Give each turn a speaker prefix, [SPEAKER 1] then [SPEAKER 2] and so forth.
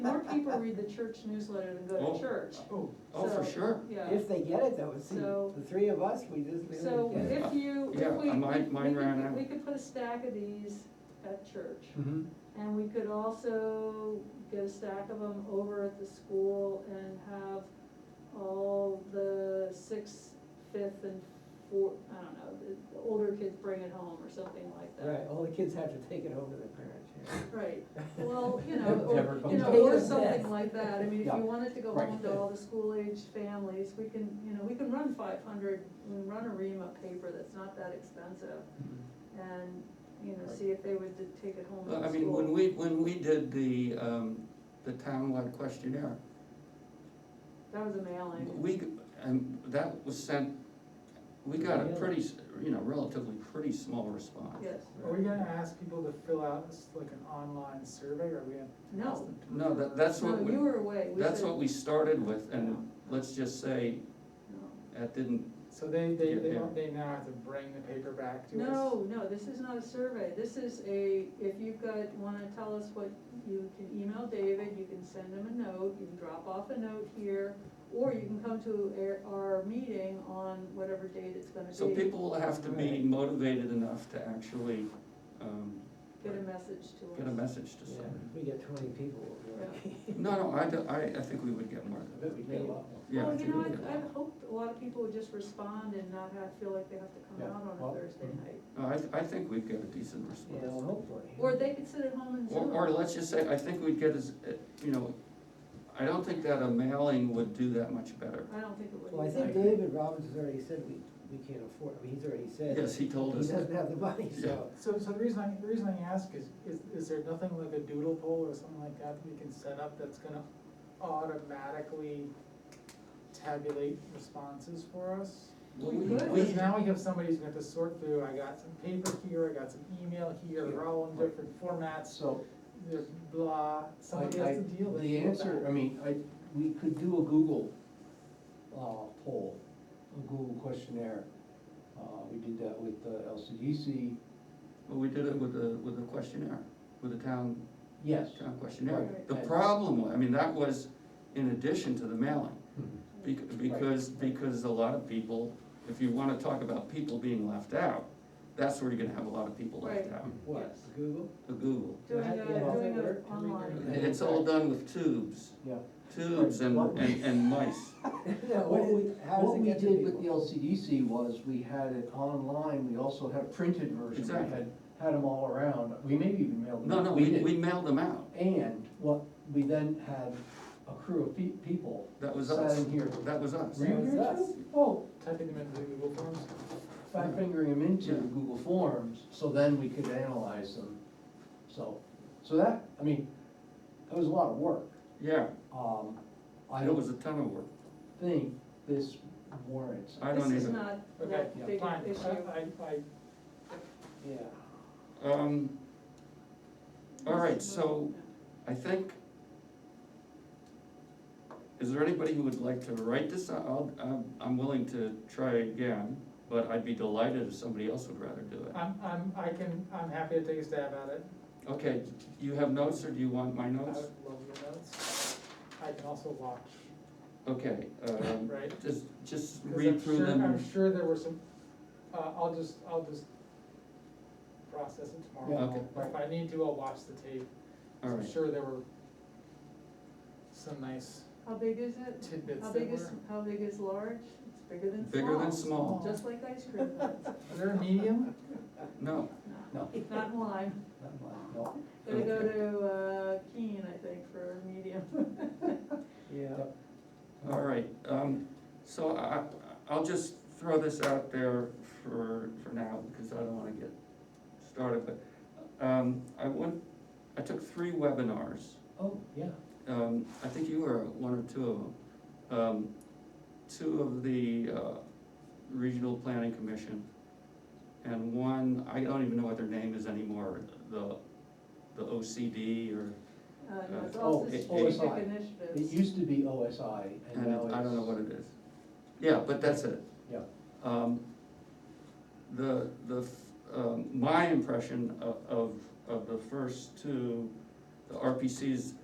[SPEAKER 1] people read the church newsletter than go
[SPEAKER 2] Oh.
[SPEAKER 1] to church,
[SPEAKER 3] Oh,
[SPEAKER 2] Oh, for
[SPEAKER 1] So,
[SPEAKER 2] sure.
[SPEAKER 1] yeah.
[SPEAKER 3] if they get it though, see,
[SPEAKER 1] So-
[SPEAKER 3] the three of us, we just, we
[SPEAKER 1] So
[SPEAKER 3] don't get it.
[SPEAKER 1] if you,
[SPEAKER 2] Yeah,
[SPEAKER 1] if we, we
[SPEAKER 2] mine- mine
[SPEAKER 1] we
[SPEAKER 2] ran out.
[SPEAKER 1] could, we could put a stack of these at church.
[SPEAKER 2] Mm-hmm.
[SPEAKER 1] And we could also get a stack of them over at the school and have all the sixth, fifth, and four, I don't know, the- the older kids bring it home or something like
[SPEAKER 3] Right,
[SPEAKER 1] that.
[SPEAKER 3] all the kids have to take it over to their parents, yeah.
[SPEAKER 1] Right, well, you know,
[SPEAKER 4] Never
[SPEAKER 1] or, you
[SPEAKER 4] comes
[SPEAKER 1] know,
[SPEAKER 3] back.
[SPEAKER 1] or
[SPEAKER 3] Yes.
[SPEAKER 1] something like that, I mean, if
[SPEAKER 3] Yeah.
[SPEAKER 1] you wanted to go
[SPEAKER 3] Right.
[SPEAKER 1] home to all the school-aged families, we can, you know, we can run five hundred, we can run a ream of paper that's not that expensive, and, you know, see if they would d- take it home to
[SPEAKER 2] Mm-hmm. I
[SPEAKER 1] the
[SPEAKER 2] mean, when
[SPEAKER 1] school.
[SPEAKER 2] we, when we did the, um, the townwide questionnaire,
[SPEAKER 1] That was a mailing,
[SPEAKER 2] we, and that was sent, we got a pretty, s- you know, relatively pretty small response.
[SPEAKER 1] yes,
[SPEAKER 5] Are we gonna ask people to fill out s- like an online survey, or are we gonna
[SPEAKER 1] no.
[SPEAKER 5] ask them to?
[SPEAKER 2] No, that, that's
[SPEAKER 1] No,
[SPEAKER 2] what, we-
[SPEAKER 1] you were away. We
[SPEAKER 2] that's
[SPEAKER 1] said-
[SPEAKER 2] what we started with, and
[SPEAKER 1] No.
[SPEAKER 2] let's just say,
[SPEAKER 1] no.
[SPEAKER 2] that didn't,
[SPEAKER 5] So they, they, they,
[SPEAKER 2] Yeah,
[SPEAKER 5] don't- they now have to bring the paper back to us?
[SPEAKER 1] No, no, this is not a survey. This is a, if you got, wanna tell us what, you can email David, you can send him a note, you can drop off a note here, or you can come to our, our meeting on whatever date it's gonna be.
[SPEAKER 2] so people will have to be
[SPEAKER 3] Right.
[SPEAKER 2] motivated enough to actually, um,
[SPEAKER 1] Get a message to us.
[SPEAKER 2] get a message to
[SPEAKER 3] Yeah,
[SPEAKER 2] someone.
[SPEAKER 3] if we get twenty people, we'll be okay.
[SPEAKER 2] No, no, I, do- I, I think we would get more
[SPEAKER 3] I
[SPEAKER 2] than
[SPEAKER 3] bet
[SPEAKER 2] that.
[SPEAKER 3] we get a lot more.
[SPEAKER 2] Yeah, I
[SPEAKER 1] Well, you
[SPEAKER 2] think
[SPEAKER 1] know,
[SPEAKER 2] we
[SPEAKER 1] I,
[SPEAKER 2] get-
[SPEAKER 1] I hoped a lot of people would just respond and not have, feel like they have to come
[SPEAKER 3] Yeah,
[SPEAKER 1] out on
[SPEAKER 3] well, mm-hmm.
[SPEAKER 1] a Thursday night.
[SPEAKER 2] No, I, I think we'd get a decent
[SPEAKER 3] Yeah, well,
[SPEAKER 2] response.
[SPEAKER 3] hopefully.
[SPEAKER 1] Or they could sit at home and
[SPEAKER 2] Or,
[SPEAKER 1] Zoom.
[SPEAKER 2] or let's just say, I think we'd get as, uh, you know, I don't think that a mailing would do that much better.
[SPEAKER 1] I don't think it would.
[SPEAKER 3] Well, I think David Robbins has already said we, we can't afford, I mean, he's already said.
[SPEAKER 2] Yes, he told us
[SPEAKER 3] He doesn't
[SPEAKER 2] that.
[SPEAKER 3] have the money, so.
[SPEAKER 5] So, so the reason I, the reason I ask is, is, is there nothing like a doodle poll or something like that we can set up that's gonna automatically tabulate responses for us?
[SPEAKER 2] Well,
[SPEAKER 1] We could.
[SPEAKER 5] Because now we have somebody who's gonna have to sort through, I got some paper here, I got some email here, they're all in different formats,
[SPEAKER 4] So,
[SPEAKER 5] there's blah,
[SPEAKER 4] I,
[SPEAKER 5] somebody
[SPEAKER 4] I-
[SPEAKER 5] has to deal with
[SPEAKER 4] the
[SPEAKER 5] all
[SPEAKER 4] answer,
[SPEAKER 5] that.
[SPEAKER 4] I mean, I, we could do a Google, uh, poll, a Google questionnaire. Uh, we did that with the LCDC,
[SPEAKER 2] Well, we did it with the, with the questionnaire, with the town,
[SPEAKER 4] yes.
[SPEAKER 2] town questionnaire.
[SPEAKER 1] Right.
[SPEAKER 2] The problem, wa- I mean, that was in addition to the mailing, bec- because, because a lot of people, if you wanna talk about people being left out, that's where you're gonna have a lot of people left
[SPEAKER 1] Right.
[SPEAKER 2] out,
[SPEAKER 3] What,
[SPEAKER 1] Yes.
[SPEAKER 3] Google?
[SPEAKER 2] the Google.
[SPEAKER 3] Yeah,
[SPEAKER 1] Doing a,
[SPEAKER 3] how's that
[SPEAKER 1] doing
[SPEAKER 3] work?
[SPEAKER 1] a
[SPEAKER 3] Can we do
[SPEAKER 1] online.
[SPEAKER 3] that?
[SPEAKER 2] It's all done with tubes,
[SPEAKER 4] Yeah.
[SPEAKER 2] tubes and, and, and mice.
[SPEAKER 3] Yeah,
[SPEAKER 4] What
[SPEAKER 3] what
[SPEAKER 4] we,
[SPEAKER 3] is, how does
[SPEAKER 4] what
[SPEAKER 3] it
[SPEAKER 4] we
[SPEAKER 3] get to
[SPEAKER 4] did with the
[SPEAKER 3] people?
[SPEAKER 4] LCDC was, we had it online, we also had a printed version, we
[SPEAKER 2] Exactly.
[SPEAKER 4] had, had them all around, we maybe even mailed them.
[SPEAKER 2] No,
[SPEAKER 4] out.
[SPEAKER 2] no, we,
[SPEAKER 4] did.
[SPEAKER 2] we mailed them out.
[SPEAKER 4] And what, we then had a crew of pe- people.
[SPEAKER 2] That was
[SPEAKER 4] sat
[SPEAKER 2] us.
[SPEAKER 4] in here.
[SPEAKER 2] That was us.
[SPEAKER 4] Were you
[SPEAKER 3] That was
[SPEAKER 4] here
[SPEAKER 3] us.
[SPEAKER 4] too? Oh,
[SPEAKER 5] Typing them into the Google Forms?
[SPEAKER 4] five fingering them into
[SPEAKER 2] Yeah.
[SPEAKER 4] Google Forms, so then we could analyze them. So, so that, I mean, that was a lot of work.
[SPEAKER 2] Yeah,
[SPEAKER 4] Um, I
[SPEAKER 2] it was
[SPEAKER 4] don't
[SPEAKER 2] a ton of work.
[SPEAKER 4] think this warrants.
[SPEAKER 2] I
[SPEAKER 1] This
[SPEAKER 2] don't
[SPEAKER 1] is
[SPEAKER 2] even,
[SPEAKER 1] not
[SPEAKER 5] Okay,
[SPEAKER 1] that big
[SPEAKER 5] fine,
[SPEAKER 1] issue.
[SPEAKER 5] I, I, I
[SPEAKER 3] Yeah,
[SPEAKER 2] um, all right,
[SPEAKER 1] This is
[SPEAKER 2] so-
[SPEAKER 1] not-
[SPEAKER 2] I think, is there anybody who would like to write this? I'll, I'm, I'm willing to try again, but I'd be delighted if somebody else would rather do it.
[SPEAKER 5] I'm, I'm, I can, I'm happy to take a stab at it.
[SPEAKER 2] Okay, you have notes or do you want my
[SPEAKER 5] I would
[SPEAKER 2] notes?
[SPEAKER 5] love your notes. I can also watch,
[SPEAKER 2] Okay, um,
[SPEAKER 5] right? 'Cause
[SPEAKER 2] just, just
[SPEAKER 5] I'm
[SPEAKER 2] read through
[SPEAKER 5] sure-
[SPEAKER 2] them.
[SPEAKER 5] I'm sure there were some, uh, I'll just, I'll just process it
[SPEAKER 4] Yeah,
[SPEAKER 5] tomorrow.
[SPEAKER 2] Okay,
[SPEAKER 5] If I need to, I'll watch the tape.
[SPEAKER 2] all
[SPEAKER 5] I'm
[SPEAKER 2] right.
[SPEAKER 5] sure there were some nice
[SPEAKER 1] How big is it?
[SPEAKER 5] tidbits
[SPEAKER 1] How
[SPEAKER 5] that
[SPEAKER 1] big
[SPEAKER 5] were.
[SPEAKER 1] is, how big is large? It's bigger than small.
[SPEAKER 2] Bigger than small,
[SPEAKER 1] Just like ice cream, but
[SPEAKER 5] Is there a medium?
[SPEAKER 2] no,
[SPEAKER 4] No,
[SPEAKER 1] it's not in lime.
[SPEAKER 4] not mine, no.
[SPEAKER 1] Gotta go to uh, Keene, I think, for a medium.
[SPEAKER 3] yeah.
[SPEAKER 2] all right. Um, so I, I'll just throw this out there for, for now, because I don't wanna get started, but, um, I went, I took three webinars.
[SPEAKER 4] Oh, yeah.
[SPEAKER 2] um, I think you were at one or two of them. Um, two of the, uh, Regional Planning Commission, and one, I don't even know what their name is anymore, the, the OCD or,
[SPEAKER 1] Uh, no, it's
[SPEAKER 2] Uh,
[SPEAKER 4] oh,
[SPEAKER 1] also
[SPEAKER 4] it-
[SPEAKER 1] strategic
[SPEAKER 4] OSI. It
[SPEAKER 1] initiatives.
[SPEAKER 4] used to be OSI and
[SPEAKER 2] and
[SPEAKER 4] now it's.
[SPEAKER 2] I don't know what it is. Yeah, but that's it.
[SPEAKER 4] Yeah,
[SPEAKER 2] Um, The, the, f- um, my impression of, of, of the first two, the RPCs